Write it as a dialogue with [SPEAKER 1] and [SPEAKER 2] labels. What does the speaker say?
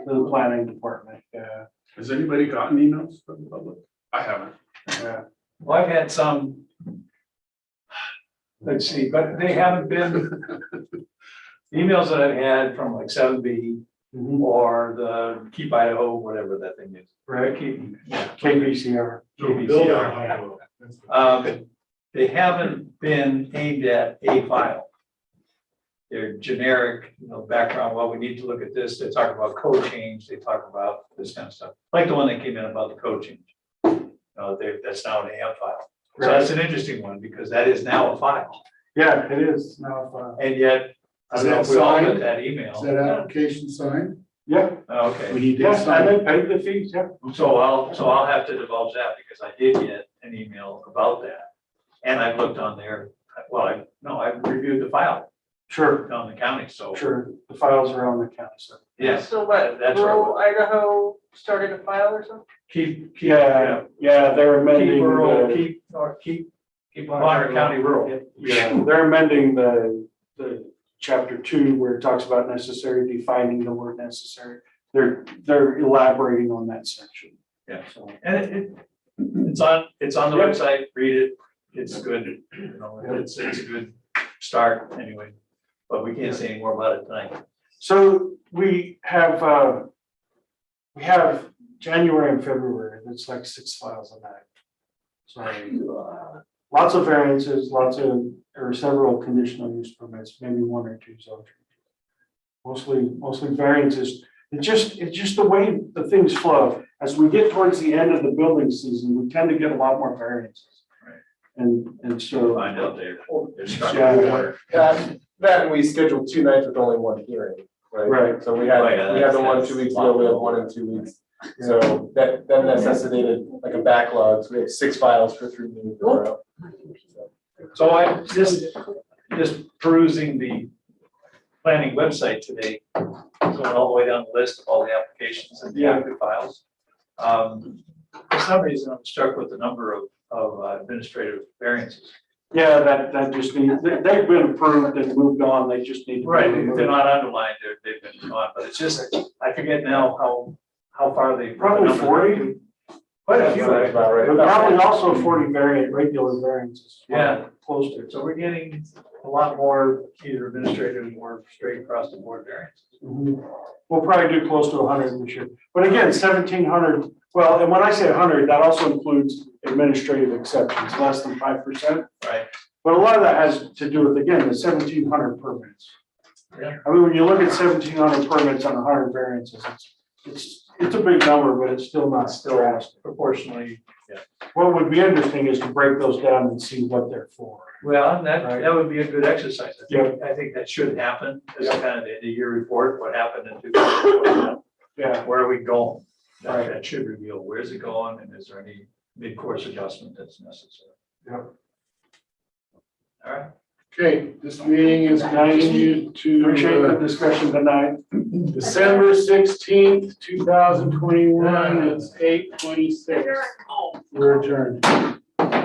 [SPEAKER 1] to the planning department, uh, yeah,
[SPEAKER 2] Has anybody gotten emails from the public? I haven't.
[SPEAKER 1] yeah. Well, I've had some. Let's see, but they haven't been. Emails that I've had from like seven B Mm-hmm. or the Keep Idaho, whatever that thing is. Right, keep. KBCR. KBCR. Um, they haven't been aimed at a file. They're generic, you know, background, well, we need to look at this, they talk about code change, they talk about this kind of stuff, like the one that came in about the code change. Uh, they, that's now an AM file, so that's an interesting one, because that is now a file,
[SPEAKER 3] Yeah, it is now.
[SPEAKER 1] and yet, I
[SPEAKER 3] Is
[SPEAKER 1] don't know
[SPEAKER 3] that
[SPEAKER 1] if we all got
[SPEAKER 3] signed?
[SPEAKER 1] that email.
[SPEAKER 3] Is that application signed?
[SPEAKER 1] Yeah.
[SPEAKER 3] We
[SPEAKER 1] Okay,
[SPEAKER 3] need to
[SPEAKER 1] Yes, I
[SPEAKER 3] sign.
[SPEAKER 1] did pay the fees, yeah. So I'll, so I'll have to divulge that, because I did get an email about that, and I've looked on there, well, I, no, I've reviewed the file.
[SPEAKER 3] Sure,
[SPEAKER 1] on the county, so.
[SPEAKER 3] sure. The files are on the county, so.
[SPEAKER 1] Yes,
[SPEAKER 4] So what,
[SPEAKER 1] That's right.
[SPEAKER 4] rural Idaho started a file or something?
[SPEAKER 1] keep, keep, yeah,
[SPEAKER 3] Yeah, yeah, they're
[SPEAKER 1] keep
[SPEAKER 3] uh, amending.
[SPEAKER 1] rural,
[SPEAKER 3] the-
[SPEAKER 1] keep, or keep, keep Bonner County rural.
[SPEAKER 3] Yeah, they're amending the, the chapter two where it talks about necessary, defining the word necessary. They're, they're elaborating on that section.
[SPEAKER 1] Yeah.
[SPEAKER 3] So,
[SPEAKER 1] And it, it, it's on, it's on the
[SPEAKER 3] Yep.
[SPEAKER 1] website, read it, it's good, you know, it's, it's a good start anyway. But we can't say any more about it tonight.
[SPEAKER 3] so we have, uh, we have January and February, that's like six files a night. Sorry. lots of variances, lots of, or several conditional use permits, maybe one or two zone changes. Mostly, mostly variances, it's just, it's just the way the things flow, as we get towards the end of the building season, we tend to get a lot more variances.
[SPEAKER 1] Right.
[SPEAKER 3] And, and
[SPEAKER 1] We'll
[SPEAKER 3] so,
[SPEAKER 1] Find out there. There's
[SPEAKER 3] Yeah.
[SPEAKER 1] water.
[SPEAKER 5] That, that we scheduled two nights with only one hearing, right?
[SPEAKER 3] right,
[SPEAKER 5] So we
[SPEAKER 1] Oh, yeah,
[SPEAKER 5] had, we had the
[SPEAKER 1] that's-
[SPEAKER 5] one
[SPEAKER 1] that's
[SPEAKER 5] two weeks ago, we had one in two weeks. So that, that necessitated like a backlog, so we had six files for three meetings in a row.
[SPEAKER 1] So I just, just perusing the planning website today, going all the way down the list of all the applications and the active files. Um, For some reason, I'm struck with the number of, of uh, administrative variances.
[SPEAKER 3] yeah, that, that just needs, they- they've been approved and moved on, they just need. to be removed.
[SPEAKER 1] They're not underlined, they're, they've been gone, but it's just, I forget now how, how far they.
[SPEAKER 3] Probably forty, quite a
[SPEAKER 5] That's
[SPEAKER 3] few,
[SPEAKER 5] that's
[SPEAKER 3] but
[SPEAKER 5] about right.
[SPEAKER 3] probably also forty variant, regular variances.
[SPEAKER 1] Yeah.
[SPEAKER 3] Close to.
[SPEAKER 1] So we're getting a lot more either administrative or straight across the board variances.
[SPEAKER 3] Mhm. We'll probably do close to hundred this year, but again, seventeen hundred, well, and when I say hundred, that also includes administrative exceptions, less than five percent.
[SPEAKER 1] Right.
[SPEAKER 3] But a lot of that has to do with, again, the seventeen hundred permits.
[SPEAKER 1] Yeah.
[SPEAKER 3] I mean, when you look at seventeen hundred permits on hundred variances, it's, it's, it's a big number, but it's still not
[SPEAKER 1] Still
[SPEAKER 3] drastic.
[SPEAKER 1] proportionally
[SPEAKER 3] What would be interesting is to break those down and see what they're for.
[SPEAKER 1] Well, and that,
[SPEAKER 3] Right.
[SPEAKER 1] that would be a good exercise. I think, I think that should happen as a kind of end of year report, what happened in two thousand twenty-one.
[SPEAKER 3] Yeah,
[SPEAKER 1] Where are we going? That,
[SPEAKER 3] Right.
[SPEAKER 1] that should reveal where's it going and is there any mid-course adjustment that's necessary?
[SPEAKER 3] Yep.
[SPEAKER 1] All right,
[SPEAKER 2] Okay, this meeting is continued
[SPEAKER 3] appreciate the
[SPEAKER 2] to uh,
[SPEAKER 3] discussion tonight.
[SPEAKER 2] December sixteenth, two thousand twenty-one, it's eight twenty-six. We're adjourned.